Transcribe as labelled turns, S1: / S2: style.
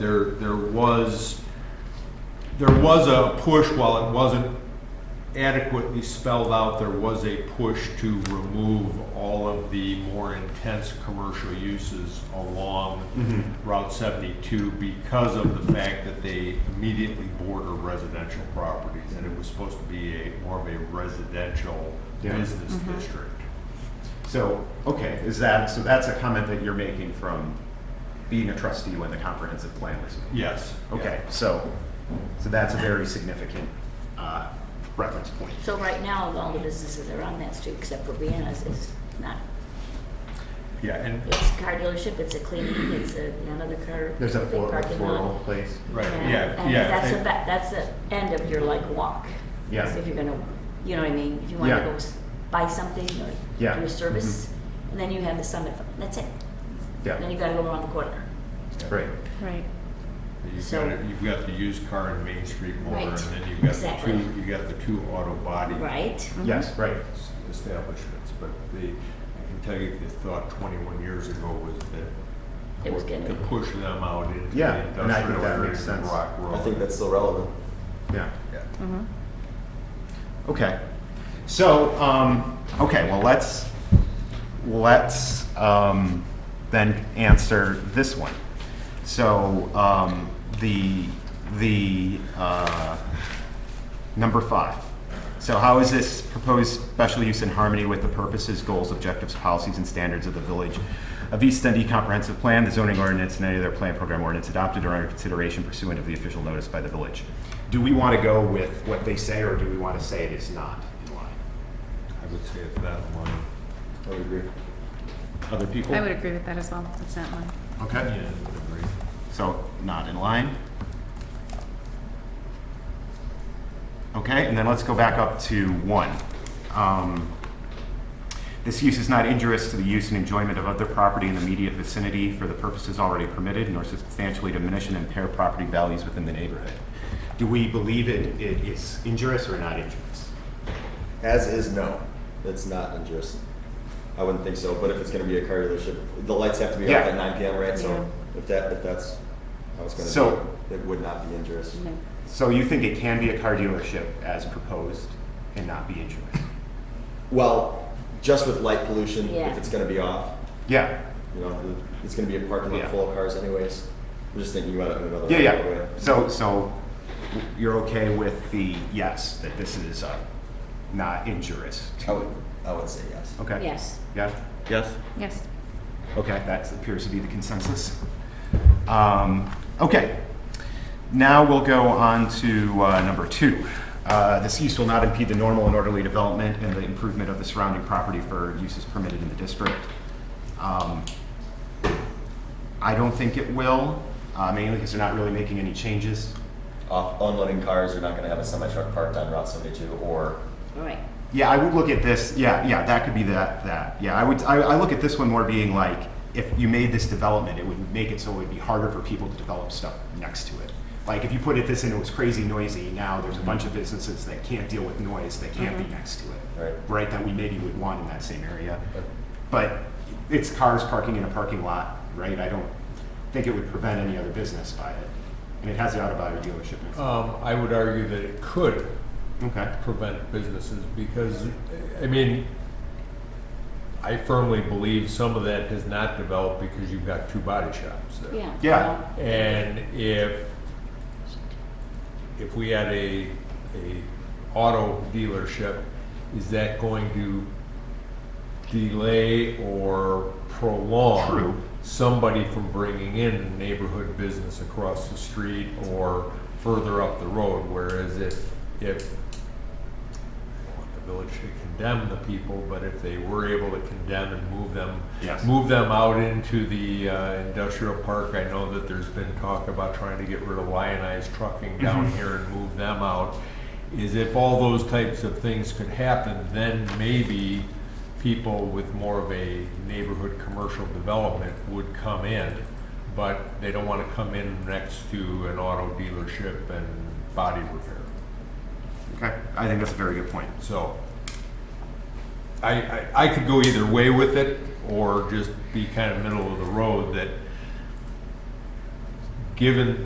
S1: there, there was, there was a push, while it wasn't adequately spelled out, there was a push to remove all of the more intense commercial uses along
S2: Mm-hmm.
S1: Route 72 because of the fact that they immediately border residential properties, and it was supposed to be a, more of a residential
S2: Yeah.
S1: business
S3: Mm-hmm.
S1: district.
S2: So, okay, is that, so that's a comment that you're making from being a trustee when the comprehensive plan was made?
S1: Yes.
S2: Okay, so, so that's a very significant uh, reference point.
S3: So right now, all the businesses that are on that street, except for Vienna's, is not,
S1: Yeah, and,
S3: it's a car dealership, it's a cleaning, it's a, another car.
S2: There's a
S3: big
S2: floral,
S3: parking lot.
S2: floral place.
S1: right,
S3: And-
S1: yeah,
S3: And
S1: yeah.
S3: that's the,
S1: and-
S3: ba- that's the end of your like walk.
S2: Yeah.
S3: If you're gonna, you know what I mean, if you wanna
S2: Yeah.
S3: go s- buy something or
S2: Yeah. Mm-hmm.
S3: do a service, and then you have the summit, that's it. Then
S2: Yeah,
S3: you gotta go around the corner.
S2: right.
S3: Mm-hmm.
S4: Right.
S1: You've
S3: So-
S1: got, you've got the used car and Main Street motor, and
S3: Right,
S1: then you've got the
S3: exactly.
S1: two, you've got the two auto body
S3: Right?
S2: Yes, right.
S1: s- establishments. But the, I can tell you, the thought twenty-one years ago was that
S3: It was gonna
S1: to
S3: be-
S1: push them out into
S2: Yeah,
S1: the
S2: and I think
S1: industrial
S2: that
S1: area
S2: makes
S1: of
S2: sense.
S1: Rock Road.
S5: I think that's still relevant.
S2: Yeah,
S1: Yeah.
S3: Mm.
S2: okay. So, um, okay, well, let's, let's um, then answer this one. So, um, the, the, uh, number five. So how is this proposed special use in harmony with the purposes, goals, objectives, policies, and standards of the Village of East Dundee Comprehensive Plan, the zoning ordinance, and any other plan program ordinance adopted or under consideration pursuant of the official notice by the village? Do we want to go with what they say, or do we want to say it is not in line?
S1: I would say it's that one.
S5: I would agree.
S2: Other people?
S4: I would agree with that as well. It's not mine.
S2: Okay,
S1: Yeah, I would agree.
S2: so not in line. Okay, and then let's go back up to one. Um, This use is not injurious to the use and enjoyment of other property in the immediate vicinity for the purposes already permitted, nor substantially diminish and impair property values within the neighborhood. Do we believe it, it is injurious or not injurious?
S5: As is, no, it's not injurious. I wouldn't think so, but if it's gonna be a car dealership, the lights have to be off
S2: Yeah.
S5: at nine PM, right? So
S4: Yeah.
S5: if that, if that's how it's gonna
S2: So-
S5: be, it would not be injurious.
S4: No.
S2: So you think it can be a car dealership as proposed and not be injurious?
S5: Well, just with light pollution,
S3: Yeah.
S5: if it's gonna be off,
S2: Yeah,
S5: you know, it's gonna be a parking
S2: Yeah.
S5: lot full of cars anyways. I'm just thinking about it in another
S2: Yeah,
S5: way.
S2: yeah. So, so you're okay with the yes, that this is uh, not injurious?
S5: I would, I would say yes.
S2: Okay?
S3: Yes.
S2: Yeah?
S5: Yes.
S4: Yes.
S2: Okay, that appears to be the consensus. Um, Okay. Now we'll go on to uh, number two. Uh, This use will not impede the normal and orderly development and the improvement of the surrounding property for uses permitted in the district. Um, I don't think it will, uh, mainly because they're not really making any changes.
S5: Off, unloading cars, you're not gonna have a semi truck parked on Route seventy-two or
S3: All right.
S2: Yeah, I would look at this. Yeah, yeah, that could be that. That. Yeah, I would. I, I look at this one more being like, if you made this development, it would make it so it would be harder for people to develop stuff next to it. Like if you put it this and it was crazy noisy, now there's a bunch of businesses that can't deal with noise that can't be next to it,
S5: Right.
S2: right? That we maybe would want in that same area,
S5: Yep.
S2: but it's cars parking in a parking lot, right? I don't think it would prevent any other business by it, and it has the auto body dealership. Next.
S1: Um, I would argue that it could
S2: okay.
S1: prevent businesses because, I mean, I firmly believe some of that has not developed because you've got two body shops there.
S3: Yeah.
S2: Yeah.
S3: well,
S1: And if, if we had a, a auto dealership, is that going to delay or prolong?
S2: True.
S1: Somebody from bringing in a neighborhood business across the street or further up the road, whereas if, if I want the village to condemn the people, but if they were able to condemn and move them,
S2: Yes.
S1: move them out into the uh, industrial park, I know that there's been talk about trying to get rid of lionized trucking down here and move them out, is if all those types of things could happen, then maybe people with more of a neighborhood commercial development would come in, but they don't want to come in next to an auto dealership and body repair.
S2: Okay. I think that's a very good point.
S1: So I, I, I could go either way with it or just be kind of middle of the road that given